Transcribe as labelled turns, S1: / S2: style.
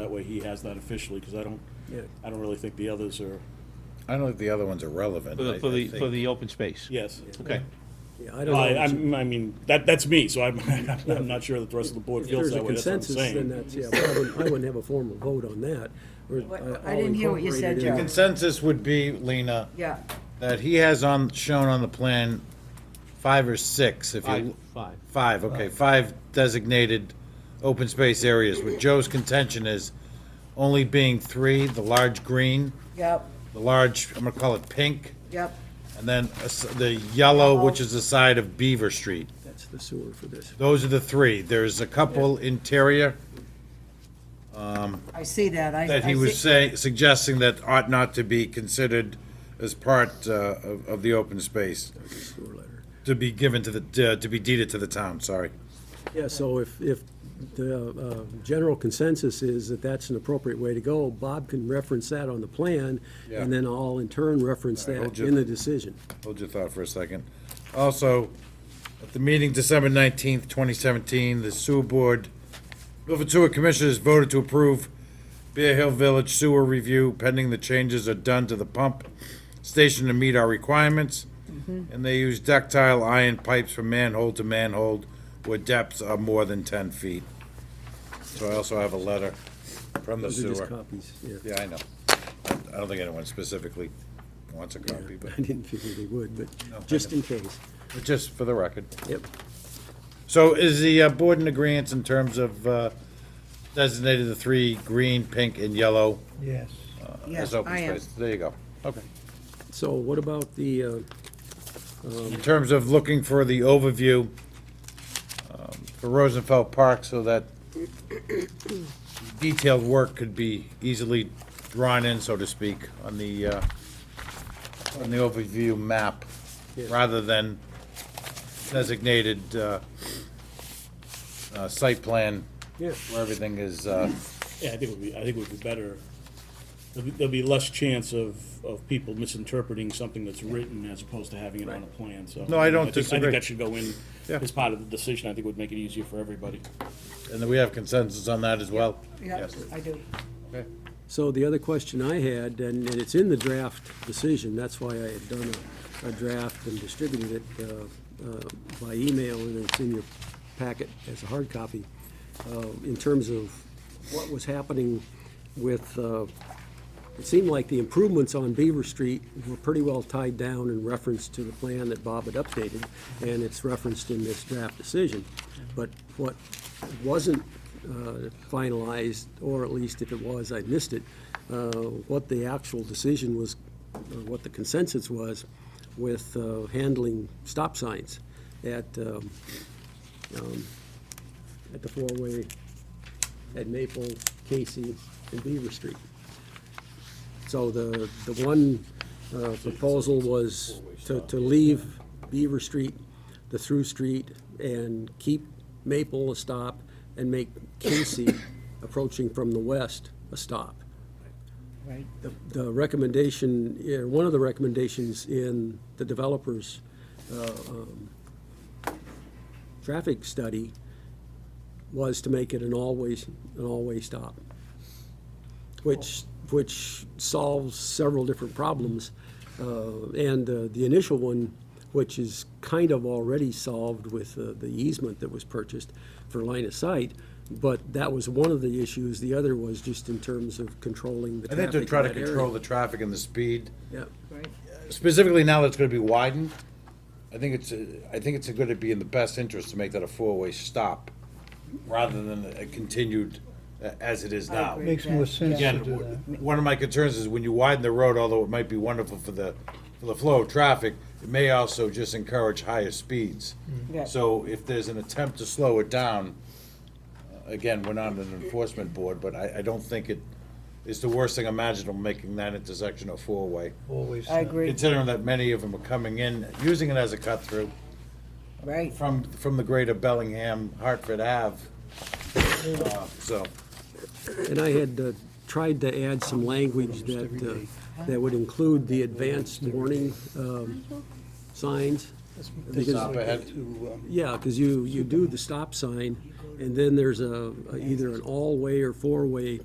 S1: way he has that officially, because I don't,
S2: Yeah.
S1: I don't really think the others are,
S3: I don't think the other ones are relevant.
S4: For the,
S3: I-
S4: for
S3: I
S4: the, for
S3: think-
S4: the open space?
S1: yes.
S4: Okay.
S2: Yeah, I
S1: I,
S2: don't know.
S1: I'm- I mean, that, that's me, so I'm, I'm not sure that the rest of the board
S2: If
S1: feels
S2: there's a
S1: that way, that's what I'm
S2: consensus, then
S1: saying.
S2: that's, yeah, but I wouldn't, I wouldn't have a formal vote on that. or
S5: What-
S2: I'll
S5: I didn't hear what
S2: incorporate
S5: you
S2: it
S5: said,
S2: in.
S5: Joe.
S3: Consensus would be, Lena,
S5: Yeah,
S3: that he has on, shown on the plan, five or six, if
S4: Five,
S3: you,
S4: five.
S3: five, okay, five designated open space areas, What Joe's contention is only being three, the large green,
S5: yep,
S3: the large, I'm gonna call it pink,
S5: yep.
S3: and then a s- the yellow, which is the side of Beaver Street.
S2: That's the sewer for this.
S3: Those are the three. There's a couple interior
S5: I see that. I,
S3: that
S5: I
S3: he was
S5: see,
S3: saying, suggesting that ought not to be considered as part uh, of of the open space,
S2: Sewer letter.
S3: to be given to the, uh, to be deeded to the town, sorry.
S2: Yeah, so if, if the uh, general consensus is that that's an appropriate way to go, Bob can reference that on the plan,
S3: Yeah.
S2: and then I'll in turn reference
S3: All right,
S2: that
S3: we'll
S2: in
S3: ju-
S2: the decision.
S3: Hold your thought for a second. Also, at the meeting December 19th, 2017, the sewer board, Milford Sewer Commissioners voted to approve Bear Hill Village sewer review pending the changes are done to the pump station to meet our requirements. And they use ductile iron pipes from manhole to manhole where depths are more than 10 feet. So I also have a letter from the
S2: Those are just
S3: sewer.
S2: copies, yeah.
S3: Yeah, I know. I don't think anyone specifically wants a copy, but
S2: I didn't figure they would,
S3: No, I
S2: but just in case.
S3: but just for the record.
S2: Yep.
S3: So is the uh, board in agreeance in terms of uh, designated the three, green, pink, and yellow
S6: Yes.
S5: yes,
S3: as open
S5: I am.
S3: space? There you go. Okay.
S2: So what about the, uh,
S3: In terms of looking for the overview um, for Rosenfeld Park so that detailed work could be easily drawn in, so to speak, on the, uh, on the overview map,
S2: Yeah.
S3: rather than designated uh, uh, site plan
S2: yeah,
S3: where everything is, uh,
S1: Yeah, I think it would be, I think it would be better, there'll be, there'll be less chance of, of people misinterpreting something that's written as opposed to having it on a plan, so.
S3: No, I don't
S1: think- I
S3: disagree.
S1: think that should go in
S3: Yeah.
S1: as part of the decision, I think it would make it easier for everybody.
S3: and that we have consensus on that as well?
S5: Yeah,
S3: Yes.
S5: I do.
S3: Okay.
S2: so the other question I had, and, and it's in the draft decision, that's why I had done a, a draft and distributed it, uh, uh, by email, and it's in your packet as a hard copy, uh, in terms of what was happening with, uh, it seemed like the improvements on Beaver Street were pretty well tied down in reference to the plan that Bob had updated, and it's referenced in this draft decision. But what wasn't uh, finalized, or at least if it was, I missed it, uh, what the actual decision was, uh, what the consensus was with uh, handling stop signs at, um, um, at the four-way at Maple, Casey, and Beaver Street. So the, the one uh, proposal was to, to leave Beaver Street, the through street, and keep Maple a stop, and make Casey approaching from the west a stop.
S6: Right.
S2: The- The recommendation, yeah, one of the recommendations in the developer's uh, um, traffic study was to make it an always, an all-way stop, which, which solves several different problems. Uh, And uh, the initial one, which is kind of already solved with uh, the easement that was purchased for line of sight, but that was one of the issues. The other was just in terms of controlling the
S3: I
S2: traffic
S3: think to
S2: in
S3: try to
S2: that
S3: control
S2: area.
S3: the traffic and the speed,
S2: Yeah,
S5: Right.
S3: specifically now that it's gonna be widened, I think it's, uh, I think it's gonna be in the best interest to make that a four-way stop, rather than a continued, uh, as it is
S5: I
S3: now.
S5: agree.
S6: Makes more sense to
S3: Again,
S6: do that.
S3: w- one of my concerns is when you widen the road, although it might be wonderful for the, for the flow of traffic, it may also just encourage higher speeds.
S5: Yeah.
S3: So if there's an attempt to slow it down, uh, again, we're not an enforcement board, but I, I don't think it is the worst thing imaginable, making that intersection a four-way.
S6: Always.
S5: I
S6: uh,
S5: agree,
S3: Considering that many of them are coming in, using it as a cut-through
S5: right.
S3: from, from the greater Bellingham, Hartford Ave. Uh, So,
S2: and I had uh, tried to add some language that, uh, that would include the advanced warning um, signs.
S6: that's
S2: because-
S6: like
S3: ahead.
S6: to, um,
S2: Yeah, because you, you do the stop sign, and then there's a, a- either an all-way or four-way